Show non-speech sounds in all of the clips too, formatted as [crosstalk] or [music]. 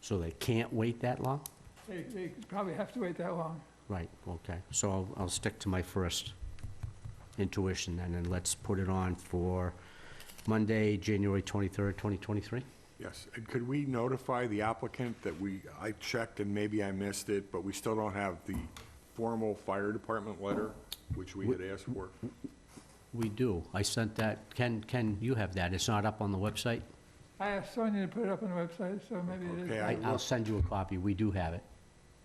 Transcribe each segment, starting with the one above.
So they can't wait that long? They, they could probably have to wait that long. Right, okay. So I'll, I'll stick to my first intuition then, and let's put it on for Monday, January 23rd, 2023? Yes, and could we notify the applicant that we, I checked and maybe I missed it, but we still don't have the formal fire department letter, which we had asked for? We do. I sent that, Ken, Ken, you have that. It's not up on the website? I asked Sonia to put it up on the website, so maybe it Okay, is. I I- I'll looked, send you a copy. We do have it.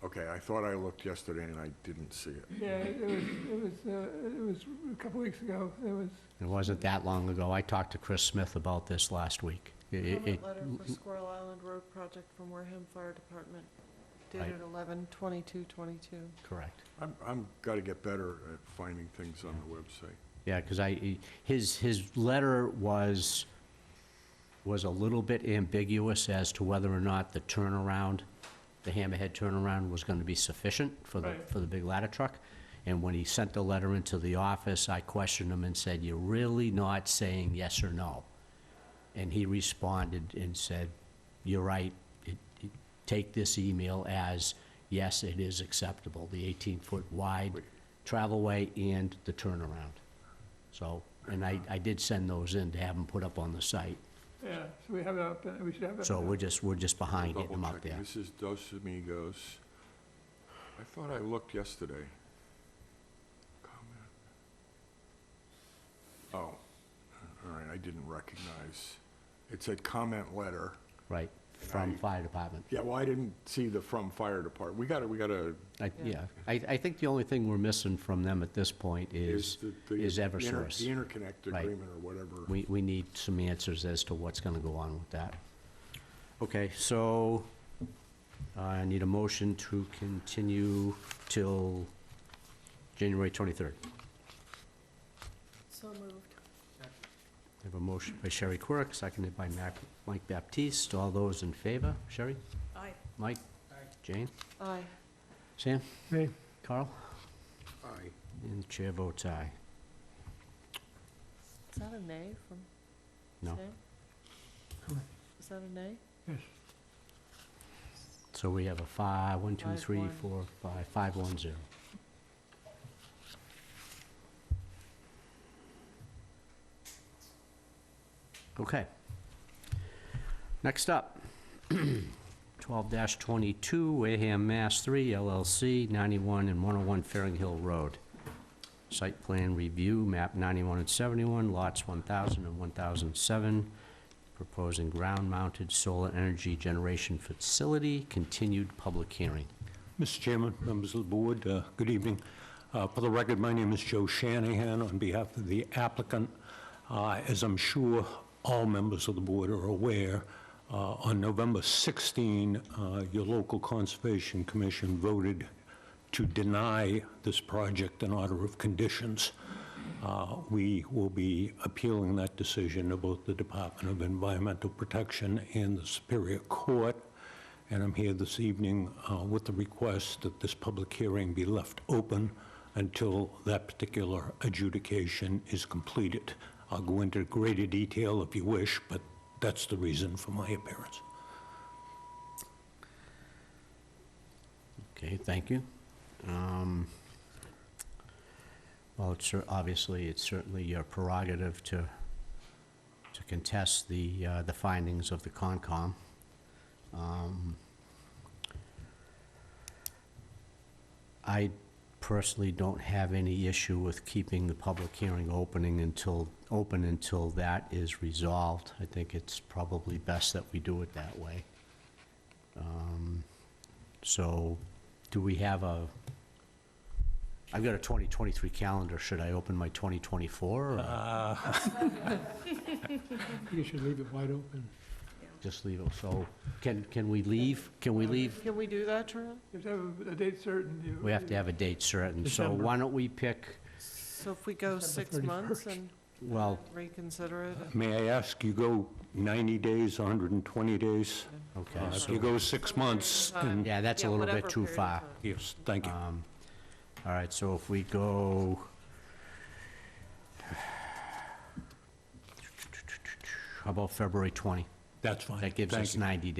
okay, I thought I looked yesterday and I didn't see it. Yeah, it was, it was, uh, it was a couple weeks ago, it was, It wasn't that long ago. I talked to Chris Smith about this last week. It- it- Comment it- letter for Squirrel Island Road Project from Wareham Fire Department dated Right. 11/22/22. Correct. I'm, I'm gotta get better at finding things on the website. Yeah, because I, his, his letter was, was a little bit ambiguous as to whether or not the turnaround, the hammerhead turnaround was going to be sufficient for the, Right. for the big ladder truck. And when he sent the letter into the office, I questioned him and said, you're really not saying yes or no? And he responded and said, you're right, It- it- take this email as, yes, it is acceptable, the 18-foot wide travelway and the turnaround. So, and I, I did send those in to have them put up on the site. yeah, so we have it up, and we should have it. So up. we're just, we're just behind getting them Double up checking. there. This is Dos Amigos. I thought I looked yesterday. Comment. Oh, all right, I didn't recognize. It said comment letter. Right, from I- fire department. Yeah, well, I didn't see the from fire department. We gotta, we gotta, I, yeah, I, I think the only thing we're missing from them at this point is is, the... the is inter- The Eversource. interconnect Right. agreement or whatever. We, we need some answers as to what's gonna go on with that. Okay, so, uh, I need a motion to continue till January twenty-third. So moved. I have a motion by Sherry Quirk, seconded by Mac- Mike Baptiste. All those in favor? Sherry? Aye. Mike? Jane? Aye. Sam? Aye. Carl? Aye. And the chair votes aye. Is that a nay from No. Sam? Is that a nay? Yes. So we have a five, one, two, Five, three, one. four, five, five, one, zero. Okay. Next up, [clears throat] twelve twenty-two, Wareham, Mass. Three LLC, ninety-one and one oh one Fairing Hill Road. Site plan review, map ninety-one and seventy-one, lots 1,000 and 1,007 proposing ground-mounted solar energy generation facility, continued public hearing. Mr. Chairman, members of the board, uh, good evening. Uh, For the record, my name is Joe Shanahan on behalf of the applicant. Uh, As I'm sure all members of the board are aware, uh, on November 16, uh, your local Conservation Commission voted to deny this project in order of conditions. Uh, We will be appealing that decision to both the Department of Environmental Protection and the Superior Court, and I'm here this evening uh, with the request that this public hearing be left open until that particular adjudication is completed. I'll go into greater detail if you wish, but that's the reason for my appearance. Okay, thank you. Um, Well, it's, cer- obviously, it's certainly your prerogative to, to contest the, uh, the findings of the Concom. Um, I personally don't have any issue with keeping the public hearing opening until, open until that is resolved. I think it's probably best that we do it that way. Um, so do we have a, I've got a 2023 calendar. Should I open my 2024 or You should leave it wide open. just leave it? So can, can we leave? Can we leave? Can we do that, Charlie? You have to have a date certain. you- We have to have a date certain. So December. why don't we pick, So if we go six December months 31st. and well, reconsider it? May I ask, you go 90 days, 120 days? okay. Uh, If so- you go six months, then, Yeah, that's a Yeah, little whatever bit too period of far. time. yes, thank you. Um, All right, so if we go... [sighs] How about February 20? That's fine. That gives Thank us you. 90